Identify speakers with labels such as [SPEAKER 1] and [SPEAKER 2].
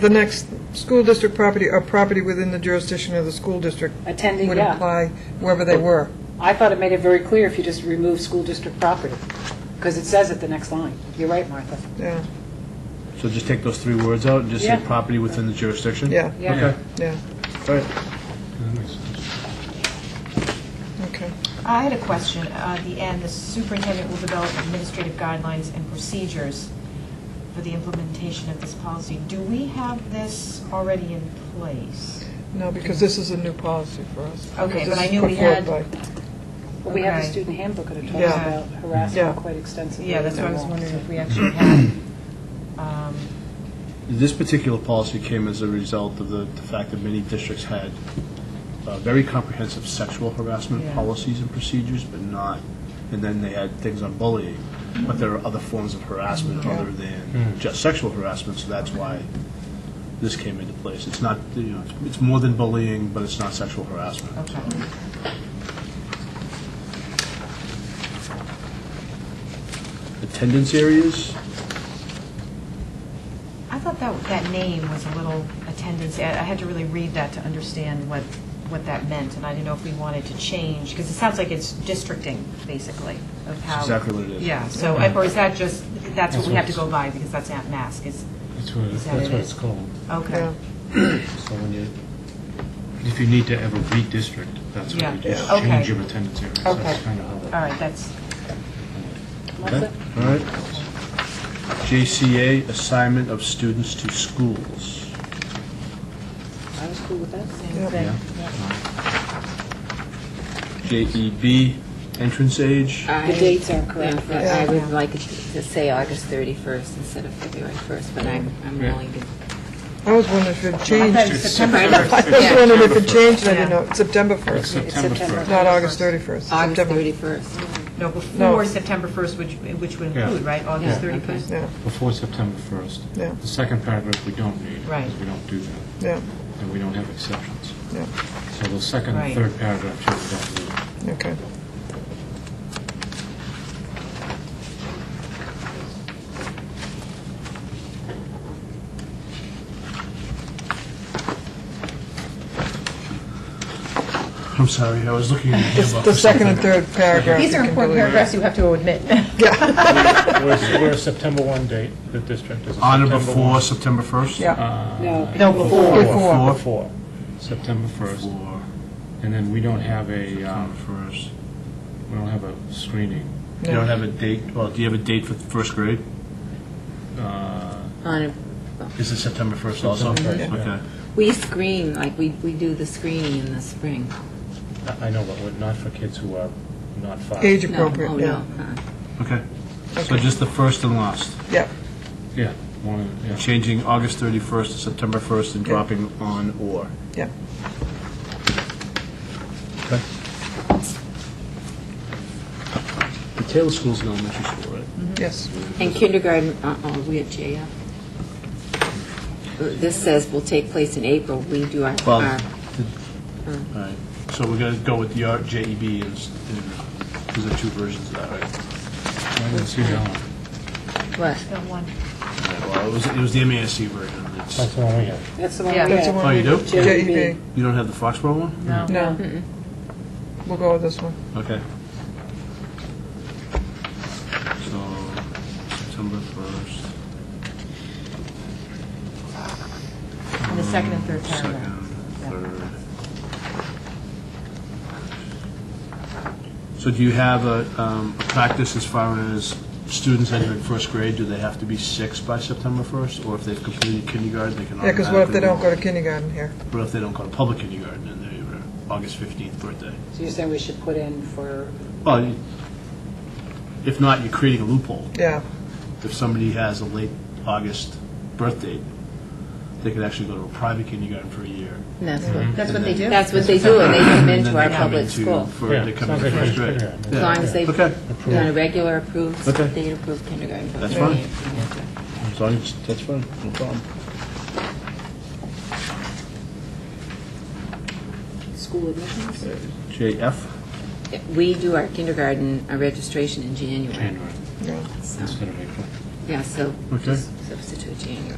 [SPEAKER 1] The next, school district property or property within the jurisdiction of the school district.
[SPEAKER 2] Attending,
[SPEAKER 1] Would
[SPEAKER 2] yeah.
[SPEAKER 1] imply wherever they were.
[SPEAKER 2] I thought it made it very clear if you just remove school district property, because it says it the next line. You're right, Martha.
[SPEAKER 1] Yeah,
[SPEAKER 3] So just take those three words out and just say
[SPEAKER 2] Yeah.
[SPEAKER 3] property within the jurisdiction?
[SPEAKER 1] yeah,
[SPEAKER 2] Yeah.
[SPEAKER 1] yeah,
[SPEAKER 3] All right.
[SPEAKER 1] okay.
[SPEAKER 4] I had a question. Uh, At the end, the superintendent will develop administrative guidelines and procedures for the implementation of this policy. Do we have this already in place?
[SPEAKER 1] No, because this is a new policy for us.
[SPEAKER 4] Okay,
[SPEAKER 1] This
[SPEAKER 4] but I
[SPEAKER 1] is
[SPEAKER 4] knew
[SPEAKER 1] put
[SPEAKER 4] we
[SPEAKER 1] forward
[SPEAKER 4] had-
[SPEAKER 1] by-
[SPEAKER 2] But we have the
[SPEAKER 4] Okay.
[SPEAKER 2] student handbook, and it talks
[SPEAKER 1] Yeah.
[SPEAKER 2] about
[SPEAKER 1] Yeah.
[SPEAKER 2] harassment quite extensively.
[SPEAKER 4] Yeah, that's what I was
[SPEAKER 2] and all.
[SPEAKER 4] wondering if we actually had. um,
[SPEAKER 3] This particular policy came as a result of the the fact that many districts had uh, very comprehensive sexual harassment
[SPEAKER 4] Yeah.
[SPEAKER 3] policies and procedures, but not, and then they had things on bullying. But there are other forms of harassment other than just sexual harassment, so that's why this came into place. It's not, you know, it's- it's more than bullying, but it's not sexual harassment.
[SPEAKER 4] Okay.
[SPEAKER 3] Attendance areas,
[SPEAKER 4] I thought that, that name was a little attendance, I I had to really read that to understand what, what that meant, and I didn't know if we wanted to change, because it sounds like it's districting, basically, of how.
[SPEAKER 3] exactly what it is.
[SPEAKER 4] Yeah, so, or is that just, that's what we have to go by, because that's at mask, is,
[SPEAKER 5] That's what,
[SPEAKER 4] Is that
[SPEAKER 5] that's
[SPEAKER 4] it?
[SPEAKER 5] what it's called.
[SPEAKER 4] okay.
[SPEAKER 1] Yeah,
[SPEAKER 5] So when you, if you need to ever redistrict, that's what
[SPEAKER 4] Yeah.
[SPEAKER 5] you do.
[SPEAKER 4] Yeah. Okay.
[SPEAKER 5] Change your attendance area. So
[SPEAKER 4] Okay. Uh,
[SPEAKER 5] That's kind of how
[SPEAKER 4] All
[SPEAKER 5] that.
[SPEAKER 4] right, that's,
[SPEAKER 3] Okay,
[SPEAKER 2] Martha?
[SPEAKER 3] all right. JCA, assignment of students to schools.
[SPEAKER 2] I was cool with that.
[SPEAKER 4] same
[SPEAKER 1] Yep.
[SPEAKER 4] thing.
[SPEAKER 3] JEB, E entrance age.
[SPEAKER 1] Uh,
[SPEAKER 2] The dates are correct.
[SPEAKER 6] Yeah, I would like it to say August 31st instead of February 1st, but I'm I'm willing to.
[SPEAKER 1] I was wondering if it changed.
[SPEAKER 4] I thought it was September
[SPEAKER 1] I was wondering if it changed, I didn't know, It's September
[SPEAKER 5] It's
[SPEAKER 1] 1st,
[SPEAKER 5] September
[SPEAKER 2] September.
[SPEAKER 5] 1st.
[SPEAKER 1] not August 31st.
[SPEAKER 6] August
[SPEAKER 1] September-
[SPEAKER 6] 31st.
[SPEAKER 4] No, before September 1st, which, which would include,
[SPEAKER 5] Yeah.
[SPEAKER 4] right, August
[SPEAKER 6] Yeah, okay.
[SPEAKER 4] 31st?
[SPEAKER 1] Yeah,
[SPEAKER 5] Before September 1st.
[SPEAKER 1] Yeah.
[SPEAKER 5] The second paragraph we don't need.
[SPEAKER 4] Right.
[SPEAKER 5] Because we don't do that,
[SPEAKER 1] yeah,
[SPEAKER 5] and we don't have exceptions.
[SPEAKER 1] yeah,
[SPEAKER 5] So the second and
[SPEAKER 4] Right.
[SPEAKER 5] third paragraph, too, we don't need.
[SPEAKER 1] okay.
[SPEAKER 3] I'm sorry, I was looking at the handbook.
[SPEAKER 1] The second and third paragraph. you can delete.
[SPEAKER 4] you have to admit.
[SPEAKER 7] We're a September 1 date, the district is a
[SPEAKER 3] On
[SPEAKER 7] September
[SPEAKER 3] or
[SPEAKER 7] 1.
[SPEAKER 3] before September 1st?
[SPEAKER 1] Yeah,
[SPEAKER 2] No.
[SPEAKER 4] No, before.
[SPEAKER 3] Uh, Before.
[SPEAKER 7] Before.
[SPEAKER 5] Uh, September 1st,
[SPEAKER 3] Before,
[SPEAKER 5] and then we don't have a,
[SPEAKER 3] September
[SPEAKER 5] um,
[SPEAKER 3] 1st.
[SPEAKER 5] we don't have a screening.
[SPEAKER 3] You don't have a date, well, do you have a date for first grade?
[SPEAKER 5] Uh,
[SPEAKER 6] On, a-
[SPEAKER 3] Is it September 1st also?
[SPEAKER 5] September 1st, yeah.
[SPEAKER 3] Okay.
[SPEAKER 6] we screen, like, we we do the screening in the spring.
[SPEAKER 5] I- I know, but we're not for kids who are not five.
[SPEAKER 1] age
[SPEAKER 6] No,
[SPEAKER 1] appropriate,
[SPEAKER 6] oh,
[SPEAKER 1] yeah,
[SPEAKER 6] no. uh-uh.
[SPEAKER 3] Okay. So
[SPEAKER 1] Okay.
[SPEAKER 3] just the first and last,
[SPEAKER 1] yeah,
[SPEAKER 5] Yeah, one, of the- yeah.
[SPEAKER 3] changing August 31st to September 1st and
[SPEAKER 1] Yeah.
[SPEAKER 3] dropping on or.
[SPEAKER 1] yeah.
[SPEAKER 3] Okay. The Taylor School's an elementary school, right?
[SPEAKER 1] Yes,
[SPEAKER 6] And kindergarten, uh-oh, we at JF. This says will take place in April, we do our,
[SPEAKER 3] Well,
[SPEAKER 6] our-
[SPEAKER 3] the- all right, so we're going to go with the R- JEB, and s- and there's the two versions of that, right?
[SPEAKER 5] I didn't see that one.
[SPEAKER 6] what?
[SPEAKER 3] All right, Well, it was, it was the MASC version,
[SPEAKER 5] That's
[SPEAKER 3] it's,
[SPEAKER 5] the one we have.
[SPEAKER 2] That's the one we
[SPEAKER 4] Yeah.
[SPEAKER 2] had.
[SPEAKER 1] that's the one.
[SPEAKER 3] Oh, you do?
[SPEAKER 1] JEB,
[SPEAKER 3] you don't have the Foxborough one?
[SPEAKER 1] no. We'll go with this one.
[SPEAKER 3] Okay. So, September 1st,
[SPEAKER 4] In the second and third
[SPEAKER 3] second,
[SPEAKER 4] paragraph.
[SPEAKER 3] third. So do you have a, um, a practice as far as students entering first grade, do they have to be six by September 1st? Or if they've completed kindergarten, they can
[SPEAKER 1] Yeah, because what if they don't
[SPEAKER 3] automatically-
[SPEAKER 1] go to kindergarten here?
[SPEAKER 3] What if they don't go to public kindergarten and their August 15th birthday?
[SPEAKER 2] So you're saying we should put in for,
[SPEAKER 3] Well, you- if not, you're creating a loophole.
[SPEAKER 1] Yeah,
[SPEAKER 3] If somebody has a late August birth date, they could actually go to a private kindergarten for a year.
[SPEAKER 6] That's what,
[SPEAKER 4] That's
[SPEAKER 3] what they do?
[SPEAKER 6] that's what they do, and they come
[SPEAKER 3] mm-hmm. and
[SPEAKER 6] into
[SPEAKER 3] then
[SPEAKER 6] our
[SPEAKER 3] they come
[SPEAKER 6] public
[SPEAKER 3] into-
[SPEAKER 6] school.
[SPEAKER 3] for-
[SPEAKER 5] Yeah,
[SPEAKER 3] They come into
[SPEAKER 5] sounds like
[SPEAKER 3] first grade.
[SPEAKER 5] first grade,
[SPEAKER 6] As long as they've
[SPEAKER 3] Okay.
[SPEAKER 6] done a regular approved,
[SPEAKER 3] Okay.
[SPEAKER 6] state-approved kindergarten.
[SPEAKER 3] That's
[SPEAKER 6] program.
[SPEAKER 3] fine. As long as, that's fine, no problem.
[SPEAKER 2] school admissions?
[SPEAKER 3] JF?
[SPEAKER 6] We do our kindergarten uh, registration in January.
[SPEAKER 5] January
[SPEAKER 1] yeah.
[SPEAKER 6] so-
[SPEAKER 5] instead of April.
[SPEAKER 6] Yeah, so
[SPEAKER 3] Okay.
[SPEAKER 6] just substitute January.